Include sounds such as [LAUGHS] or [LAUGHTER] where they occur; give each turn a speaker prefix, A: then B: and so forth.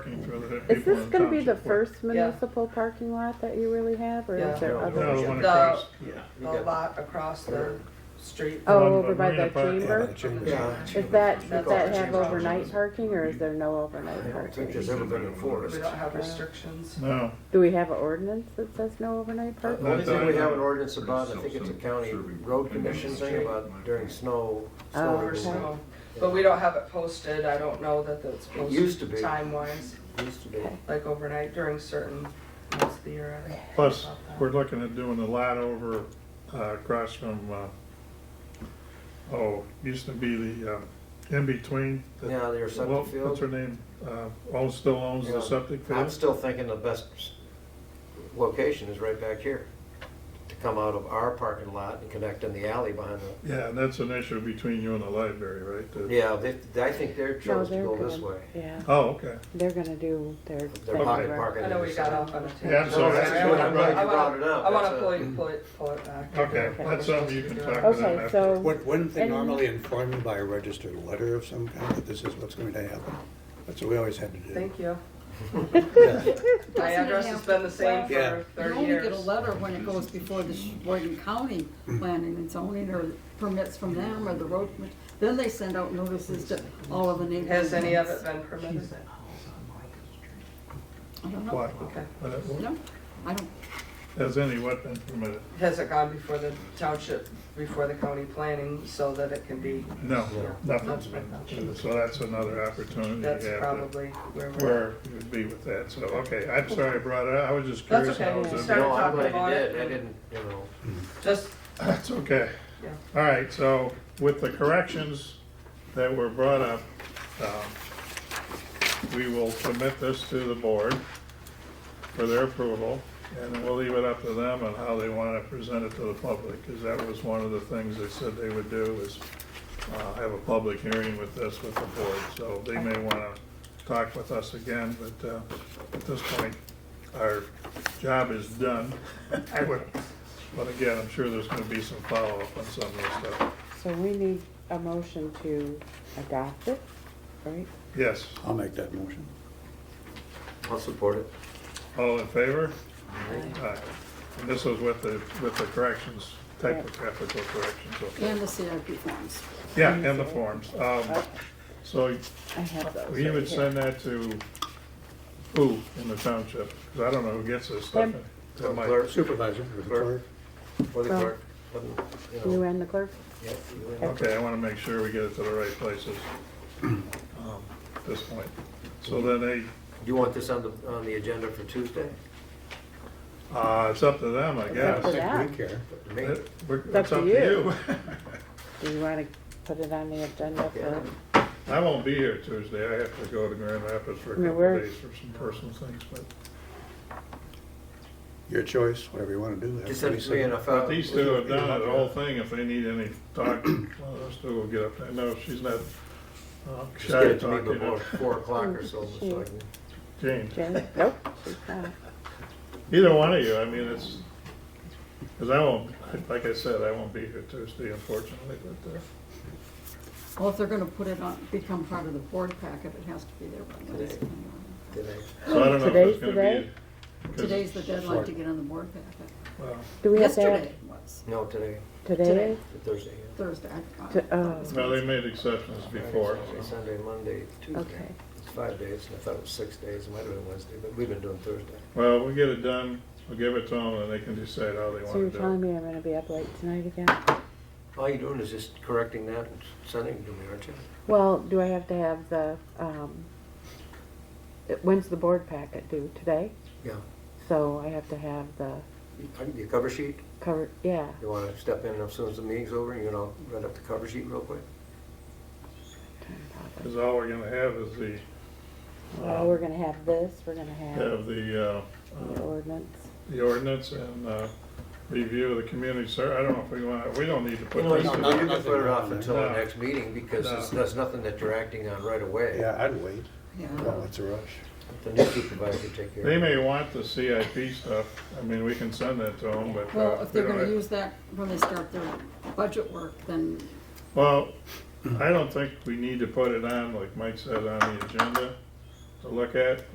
A: that
B: Is
A: people
B: this
A: in
B: gonna be the
A: township were-
B: first municipal parking lot that you really have, or
C: Yeah.
B: is there
D: No,
B: other?
A: No, the one
C: The-
A: across.
D: Yeah. we
C: The
D: got-
C: lot across the street.
B: Oh,
A: one
B: over
A: by
B: by
A: Marina
B: the
A: Park.
E: Yeah, by
B: chamber?
E: the chamber.
C: Yeah.
B: Is that,
C: That's
B: does that
C: all
B: have
C: the
B: overnight
C: change.
B: parking, or is there no
E: I
B: overnight
E: don't think
B: parking?
E: there's ever been enforced.
C: We don't have restrictions.
A: No,
B: Do we have an ordinance that says no overnight
E: The
B: parking?
E: only thing we have an ordinance about, I think it's a county road commission thing about during snow, snow
B: Oh,
C: Or
B: okay.
E: removal.
C: so. But we don't have it posted. I don't know that it's posted.
E: used to be.
C: Time wise,
E: Used to be.
C: like overnight during certain months of the year. I don't know
A: plus,
C: about that.
A: we're looking at doing a lot over, uh, across from, uh, oh, used to be the, uh, in between. the-
E: Yeah, their
A: well,
E: septic
A: What's her
E: field.
A: name, uh, owns, still owns
E: Yeah.
A: the septic
E: I'm
A: field?
E: still thinking the best location is right back here. To come out of our parking lot and connect in the alley behind the,
A: Yeah, and that's an issue between you and the library, right? The-
E: yeah, they, I think they're
B: No,
E: chose to
B: they're
E: go this
B: gonna-
E: way.
B: Yeah,
A: Oh, okay,
B: they're gonna do their.
E: They're
B: thing
E: pocket
B: where-
E: parking.
C: I know we got off on a tangent.
A: Yeah, I'm sorry.
C: Sorry, I wanna-
A: I'm glad you
C: I wanna-
E: brought it up.
C: I wanna
E: That's a-
C: pull it, pull it, pull it back.
A: okay,
B: Okay.
A: that's something you can talk to them
B: Okay,
A: after.
B: so,
D: Wouldn't wouldn't they
B: And-
D: normally inform you by a registered letter of some kind that this is what's going to happen? That's what we always had to do.
C: Thank you.
D: Yeah.
C: My address has been the same
D: Yeah.
C: for
F: You
C: thirty
F: only get a
C: years.
F: letter when it goes before the Boyden County planning and zoning or permits from them or the road, commis- then they send out notices to all of the neighbors.
C: Has any of it been permitted?
F: I don't know.
A: What?
C: Okay.
A: But it-
F: No, I don't,
A: Has any weapon permitted?
C: Has it gone before the township, before the county planning, so that it can be,
A: No, nothing's been, so that's another opportunity
C: that's
A: you have to-
C: probably where we're.
A: where you'd be with that, so, okay, I'm sorry I brought it up, I was just curious.
C: That's okay.
A: how it was-
C: Sorry. Started
E: No, I'm
C: talking
E: glad
C: about
E: you
C: it.
E: did. I didn't, you know.
C: Just,
A: [LAUGHS] That's okay.
C: Yeah.
A: All right, so with the corrections that were brought up, um, we will submit this to the board for their approval, and then we'll leave it up to them on how they want to present it to the public, because that was one of the things they said they would do, is uh, have a public hearing with this with the board, so they may want to talk with us again, but uh, at this point, our job is done. [LAUGHS] I would, but again, I'm sure there's gonna be some follow-up on some of this stuff.
B: so we need a motion to adopt it, right?
A: Yes,
D: I'll make that motion.
E: I'll support it.
A: all in favor? Aye. And this was with the, with the corrections, typographical corrections, okay.
F: and the CIP forms.
A: Yeah, and the forms. Um, So
B: I have those.
A: you
B: right
A: would
B: here.
A: send that to who in the township? 'Cause I don't know who gets this stuff.
B: Them.
A: To Mike.
E: Clerk,
D: Supervisor, or the clerk.
E: or the
B: Well.
E: clerk. um, you
B: You
E: know.
B: and the clerk?
E: Yep, you and-
A: Okay, I wanna make sure we get it to the right places, um, at this point. So then they,
E: Do you want this on the, on the agenda for Tuesday?
A: uh, it's up to them, I
B: up to
A: guess.
B: them. Yeah.
D: We care.
E: To me?
A: It- we're-
B: It's up
A: It's up
B: to
A: to you. [LAUGHS]
B: you. Do you wanna put it on the agenda for,
E: Yeah.
A: I won't be here Tuesday. I have to go to Grand Rapids for a
B: I mean,
A: couple
B: we're-
A: of days for some personal things, but
D: Your choice, whatever you want to do. That's
E: Just send
D: what we
E: three
D: said.
E: and a
A: but
E: five.
A: these two have done the
E: uh,
A: whole thing. If they need any talk, well, those two will get up there. No, she's not uh,
E: Just
A: shy
E: get
A: to
E: it
A: talk
E: to me
A: to
E: before
A: you.
E: four o'clock or so, so I can-
A: Jane,
B: Jen? Nope, she's not.
A: either one of you. I mean, it's, because I won't, like I said, I won't be here Tuesday unfortunately, but uh,
F: Well, if they're gonna put it on, become part of the board packet, it has to be there by Wednesday. anyway.
E: today.
A: so I don't know if there's
B: Today's
A: going
B: the
A: to
B: day?
A: be. 'cause-
F: Today's the deadline to get on the board packet.
A: well,
B: Do we have to
F: Yesterday
B: add
F: was,
E: No, today,
B: today?
F: Today.
E: Thursday.
F: Thursday. I- I-
B: To- oh.
F: it was
A: No, they
F: Wednesday.
A: made exceptions
E: yeah.
A: before.
E: Saturday, Sunday, Monday, Tuesday.
B: Okay.
E: It's five days, and I thought it was six days, it might have been Wednesday, but we've been doing Thursday.
A: Well, we'll get it done. We'll give it to them and they can decide how they
B: So you're
A: want to do it.
B: telling me I'm gonna be up late tonight again?
E: All you're doing is just correcting that and sending it to me, aren't you?
B: Well, do I have to have the, um, it- when's the board packet due? Today?
E: Yeah.
B: So I have to have the
E: You- Your cover sheet,
B: cover, yeah.
E: you wanna step in as soon as the meeting's over, and you're gonna write up the cover sheet real quick?
A: Because all we're gonna have is the,
B: Well, we're gonna have this, we're gonna have
A: have the, uh,
B: the
A: uh,
B: ordinance.
A: the ordinance and, uh, review of the community ser, I don't know if we want, we don't need to put
E: You know,
A: this
E: you
A: in.
E: can- you can
D: nothing
E: put it
D: wrong
E: off
D: there.
E: until the
A: No.
E: next meeting, because it's- that's nothing that you're acting on right away.
D: Yeah, I'd wait.
F: Yeah.
D: Well, it's a rush.
E: The new supervisor take care of it.
A: They may want the CIP stuff, I mean, we can send that to them, but. uh,
F: Well, if
A: we
F: they're
A: don't
F: gonna
A: have-
F: use that when they start their budget work, then
A: Well, I don't think we need to put it on, like Mike said, on the agenda to look at.